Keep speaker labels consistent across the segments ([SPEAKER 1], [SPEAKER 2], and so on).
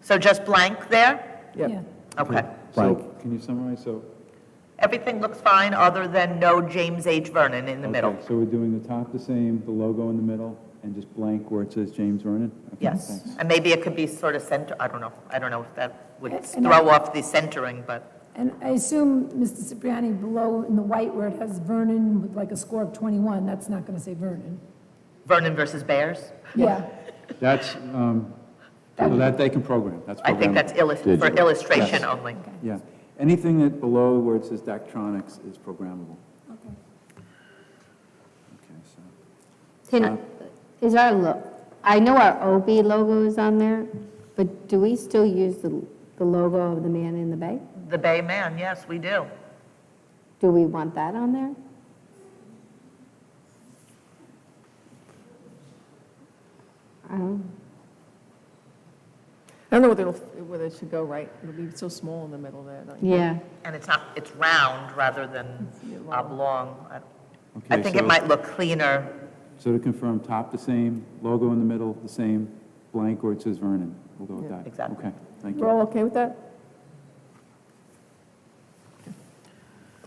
[SPEAKER 1] So just blank there?
[SPEAKER 2] Yeah.
[SPEAKER 1] Okay.
[SPEAKER 3] So,
[SPEAKER 2] Blank.
[SPEAKER 3] can you summarize, so?
[SPEAKER 1] Everything looks fine, other than no James H. Vernon in the middle.
[SPEAKER 3] Okay, So we're doing the top the same, the logo in the middle, and just blank where it says James Vernon? Okay,
[SPEAKER 1] Yes.
[SPEAKER 3] thanks.
[SPEAKER 1] And maybe it could be sort of center, I don't know. I don't know if that would
[SPEAKER 4] And I-
[SPEAKER 1] throw off the centering, but,
[SPEAKER 4] And I assume, Mr. Cipriani, below in the white where it has Vernon with like a score of 21, that's not going to say Vernon.
[SPEAKER 1] Vernon versus Bears?
[SPEAKER 4] Yeah,
[SPEAKER 3] That's, um, so that they can program, that's
[SPEAKER 1] I think
[SPEAKER 3] programmable.
[SPEAKER 1] that's illus- for
[SPEAKER 2] Digital.
[SPEAKER 1] illustration only.
[SPEAKER 3] Yeah, anything that below where it says Daktronics is programmable.
[SPEAKER 4] okay.
[SPEAKER 3] Okay, so,
[SPEAKER 5] Can, is our, lo- I know our OB logo is on there, but do we still use the, the logo of the man in the bay?
[SPEAKER 1] The Bay Man, yes, we do.
[SPEAKER 5] Do we want that on there? I don't,
[SPEAKER 6] I don't know whether it'll, whether it should go right. It'll be so small in the middle there. like-
[SPEAKER 5] yeah,
[SPEAKER 1] And it's not, it's round rather than oblong. I- I
[SPEAKER 3] Okay,
[SPEAKER 1] think it
[SPEAKER 3] so-
[SPEAKER 1] might look cleaner.
[SPEAKER 3] so to confirm, top the same, logo in the middle the same, blank where it says Vernon, we'll go with that.
[SPEAKER 1] exactly.
[SPEAKER 3] Okay, thank
[SPEAKER 6] We're
[SPEAKER 3] you.
[SPEAKER 6] all okay with that?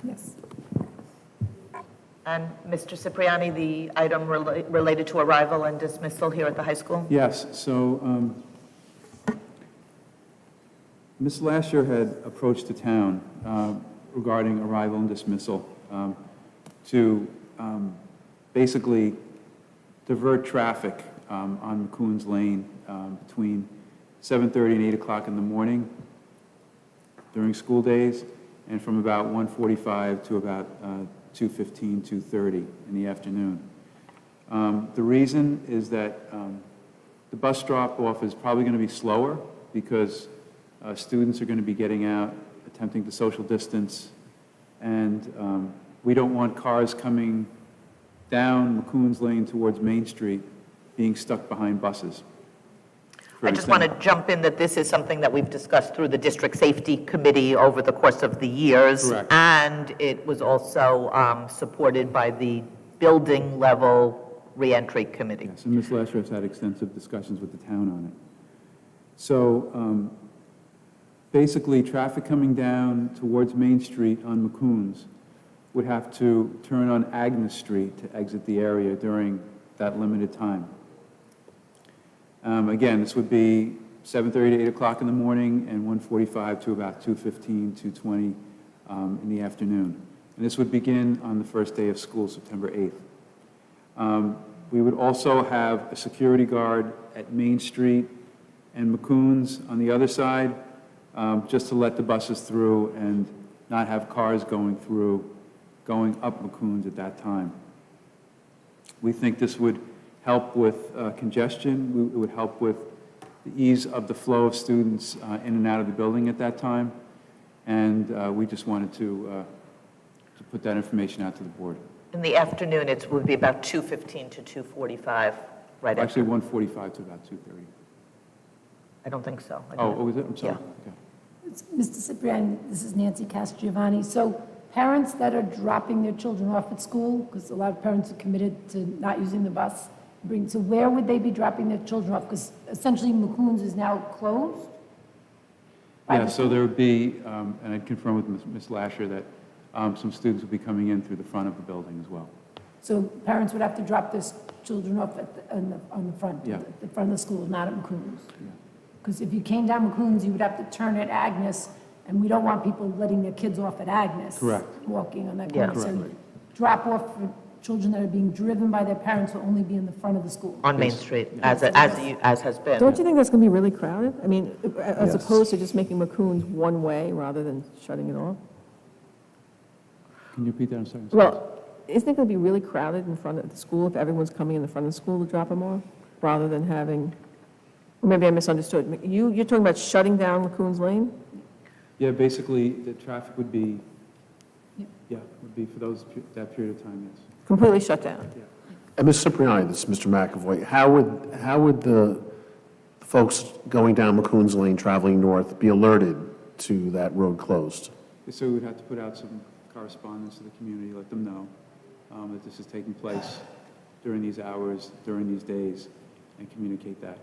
[SPEAKER 4] yes.
[SPEAKER 1] And Mr. Cipriani, the item rela- related to arrival and dismissal here at the high school?
[SPEAKER 3] Yes, so um, Ms. Lasher had approached the town um, regarding arrival and dismissal um, to um, basically divert traffic um, on McCoon's Lane um, between 7:30 and 8 o'clock in the morning during school days, and from about 1:45 to about uh, 2:15, 2:30 in the afternoon. Um, The reason is that um, the bus drop-off is probably going to be slower because uh, students are going to be getting out, attempting to social distance, and um, we don't want cars coming down McCoon's Lane towards Main Street being stuck behind buses. for
[SPEAKER 1] I just want to
[SPEAKER 3] example.
[SPEAKER 1] jump in that this is something that we've discussed through the district safety committee over the course of the years.
[SPEAKER 3] Correct.
[SPEAKER 1] And it was also um, supported by the building level reentry committee.
[SPEAKER 3] Yes, and Ms. Lasher has had extensive discussions with the town on it. So um, basically, traffic coming down towards Main Street on McCoon's would have to turn on Agnes Street to exit the area during that limited time. Um, Again, this would be 7:30 to 8 o'clock in the morning and 1:45 to about 2:15, 2:20 um, in the afternoon. And this would begin on the first day of school, September 8th. Um, We would also have a security guard at Main Street and McCoon's on the other side, um, just to let the buses through and not have cars going through, going up McCoon's at that time. We think this would help with uh, congestion, We- it would help with the ease of the flow of students uh, in and out of the building at that time, and uh, we just wanted to, uh, to put that information out to the board.
[SPEAKER 1] In the afternoon, it would be about 2:15 to 2:45, right? after.
[SPEAKER 3] Actually, 145 to about 2:30.
[SPEAKER 1] I don't think so. I
[SPEAKER 3] Oh,
[SPEAKER 1] don't-
[SPEAKER 3] what was it? I'm sorry.
[SPEAKER 1] Yeah.
[SPEAKER 3] Okay.
[SPEAKER 4] It's- Mr. Cipriani, this is Nancy Castriovanni. So parents that are dropping their children off at school, because a lot of parents are committed to not using the bus, bring, so where would they be dropping their children off? Because essentially McCoon's is now closed?
[SPEAKER 3] Yeah, so there would be, um, and I'd confirm with Ms. Ms. Lasher that um, some students would be coming in through the front of the building as well.
[SPEAKER 4] So parents would have to drop their s- children off at, the- on the, on the front,
[SPEAKER 3] Yeah.
[SPEAKER 4] the front of the school, not at McCoon's. Because if you came down McCoon's, you would have to turn at Agnes, and we don't want people letting their kids off at Agnes.
[SPEAKER 3] Correct.
[SPEAKER 4] Walking on that
[SPEAKER 1] Yeah.
[SPEAKER 4] corner. So drop off for children that are being driven by their parents will only be in the front of the school.
[SPEAKER 1] On Main Street, as, it- as you- as has been.
[SPEAKER 6] Don't you think that's going to be really crowded? I mean, as opposed to just making McCoon's one way rather than shutting it off?
[SPEAKER 3] Can you repeat that? I'm sorry.
[SPEAKER 6] Well, isn't it going to be really crowded in front of the school if everyone's coming in the front of the school to drop them off? Rather than having, or maybe I misunderstood. You, you're talking about shutting down McCoon's Lane?
[SPEAKER 3] Yeah, basically, the traffic would be,
[SPEAKER 4] Yeah.
[SPEAKER 3] yeah, would be for those, pe- that period of time, yes.
[SPEAKER 6] Completely shut down?
[SPEAKER 2] And Mr. Uh, Cipriani, this is Mr. McAvoy. How would, how would the folks going down McCoon's Lane, traveling north, be alerted to that road closed?
[SPEAKER 3] So we'd have to put out some correspondence to the community, let them know um, that this is taking place during these hours, during these days, and communicate that.